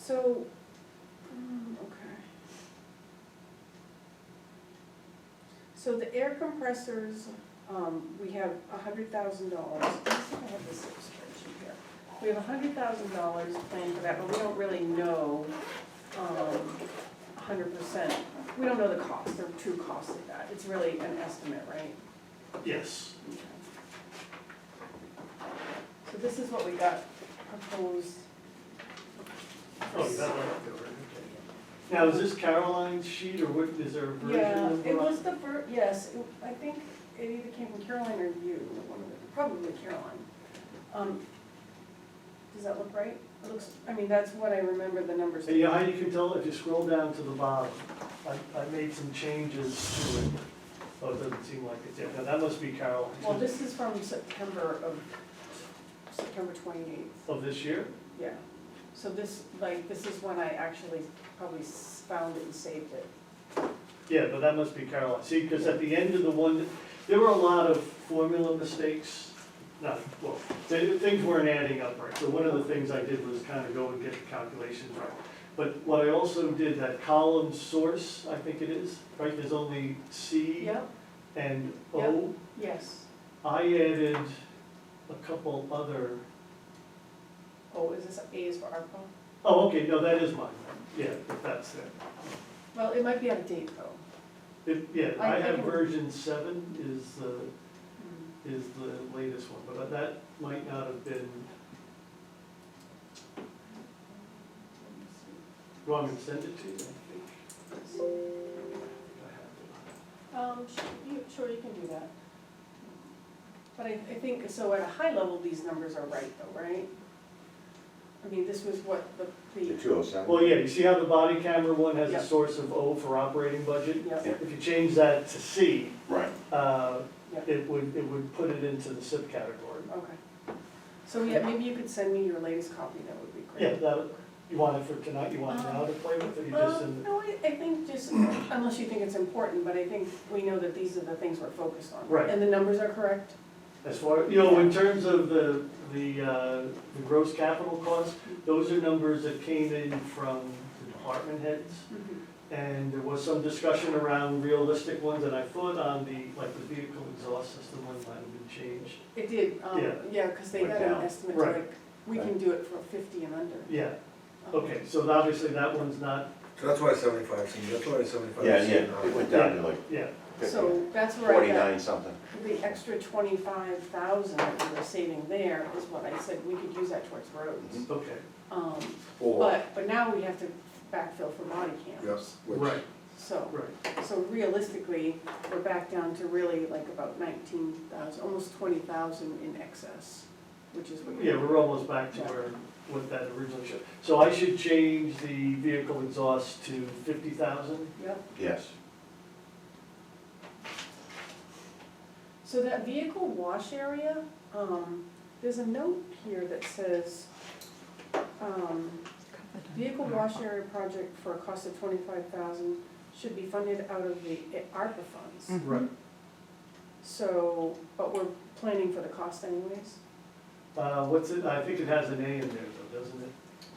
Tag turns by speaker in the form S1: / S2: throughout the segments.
S1: So, um, okay. So the air compressors, um, we have a hundred thousand dollars, I think I have this illustration here. We have a hundred thousand dollars planned for that, but we don't really know, um, a hundred percent. We don't know the cost, or true cost of that, it's really an estimate, right?
S2: Yes,
S1: Okay. So this is what we got proposed.
S2: oh, you got it right there, right? Now, is this Caroline's sheet or what, is there a version
S1: Yeah,
S2: of
S1: it was the fir, yes, it- I think it either came from Caroline or you, one of the, probably Caroline. Um, Does that look right? It looks, I mean, that's what I remember the numbers.
S2: Yeah, how you can tell, if you scroll down to the bottom, I, I made some changes to it. Oh, it doesn't seem like it's, yeah, now that must be
S1: Well,
S2: Caroline's
S1: this is from September of, September twenty-eighth,
S2: of this year?
S1: yeah. So this, like, this is when I actually probably s- found it and saved it.
S2: Yeah, but that must be Caroline, see, because at the end of the one, there were a lot of formula mistakes, not, well, th- things weren't adding up right, so one of the things I did was kind of go and get the calculations right. But what I also did, that column source, I think it is, right, there's only C
S1: Yep,
S2: and
S1: Yep.
S2: O.
S1: yes.
S2: I added a couple other,
S1: Oh, is this A is for ARPA?
S2: oh, okay, no, that is mine, yeah, that's it.
S1: Well, it might be out of date though.
S2: It- Yeah,
S1: I-
S2: I
S1: I
S2: have
S1: can-
S2: version seven is the
S1: Hmm,
S2: is the latest one, but that might not have been, do you want me to send it to you? I think I
S1: Um, sh- you- sure, you can do that. But I, I think, so at a high level, these numbers are right though, right? I mean, this was what the,
S3: The
S1: the,
S3: two oh
S2: have
S3: seven?
S2: it. Well, yeah, you see how the body camera one has
S1: Yep.
S2: a source of O for operating budget?
S1: yeah,
S2: If you change that to C,
S3: Right.
S2: uh,
S1: Yep.
S2: it would, it would put it into the SIP category.
S1: okay. So yeah, maybe you could send me your latest copy, that would be
S2: Yeah,
S1: great.
S2: that, you want it for tonight, you want it now to play with, or you just
S1: Well,
S2: send it?
S1: Um, no, I, I think just, unless you think it's important, but I think we know that these are the things we're focused on.
S2: Right.
S1: And the numbers are correct?
S2: As far, you know, in terms of the, the, uh, the gross capital costs, those are numbers that came in from the department heads. And there was some discussion around realistic ones, and I thought on the, like, the vehicle exhaust system one might have been changed.
S1: It did, um,
S2: Yeah.
S1: yeah, because they
S3: Went
S1: got an
S3: down.
S1: estimate,
S2: Right.
S1: like, we can do it for fifty and under.
S2: Yeah,
S1: Um,
S2: okay, so obviously that one's not,
S4: So that's why seventy-five seems, that's why seventy-five
S3: Yeah,
S4: seems.
S3: yeah, it went down to like
S2: yeah,
S1: So that's where I got
S3: forty-nine something.
S1: the extra twenty-five thousand that we were saving there is what I said, we could use that towards roads.
S2: okay.
S1: Um,
S3: Or,
S1: but, but now we have to backfill for body cams.
S4: Yes, which,
S1: So,
S2: Right,
S1: so realistically, we're back down to really like about nineteen thousand, almost twenty thousand in excess, which is what.
S2: yeah, we're almost back to where, what that originally showed. So I should change the vehicle exhaust to fifty thousand?
S1: Yep,
S3: yes,
S1: so that vehicle wash area, um, there's a note here that says, um, Vehicle wash area project for a cost of twenty-five thousand should be funded out of the ARPA funds.
S2: Right.
S1: So, but we're planning for the cost anyways.
S2: Uh, what's it, I think it has an A in there though, doesn't it?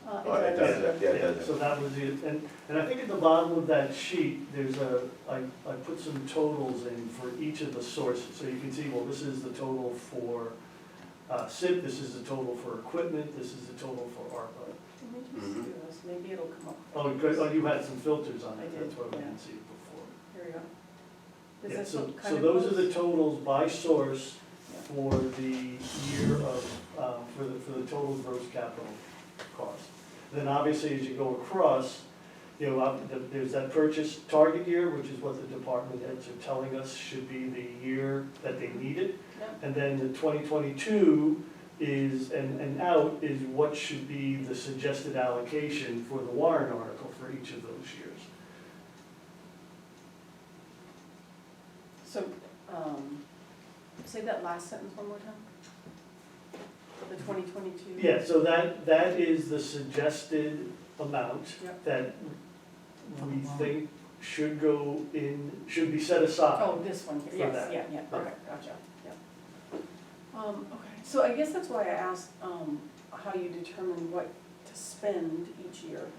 S1: Uh,
S3: Oh, it does,
S1: it's-
S3: yeah, it does.
S2: So that was it, and, and I think at the bottom of that sheet, there's a, I, I put some totals in for each of the sources, so you can see, well, this is the total for, uh, SIP, this is the total for equipment, this is the total for ARPA.
S1: Let me
S3: Mm-hmm.
S1: just do this, maybe it'll come up.
S2: Oh, good, oh, you had some filters on
S1: I
S2: it,
S1: did,
S2: that's why we
S1: yeah.
S2: didn't see it before.
S1: Here we go. Does
S2: Yeah,
S1: this
S2: so-
S1: look kind of
S2: So those are the
S1: close?
S2: totals by source for the year of, um, for the, for the total gross capital cost. Then obviously, as you go across, you know, up- the- there's that purchase target year, which is what the department heads are telling us should be the year that they need it.
S1: Yep.
S2: And then the twenty twenty-two is, and, and out is what should be the suggested allocation for the warrant article for each of those years.
S1: So, um, say that last sentence one more time. For the twenty twenty-two.
S2: Yeah, so that, that is the suggested amount
S1: Yep.
S2: that we think should go in, should be set aside.
S1: Oh, this one here,
S2: For
S1: yes,
S2: that.
S1: yeah, yeah, okay,
S2: Okay.
S1: gotcha, yeah. Um, okay, so I guess that's why I asked, um, how you determine what to spend each year.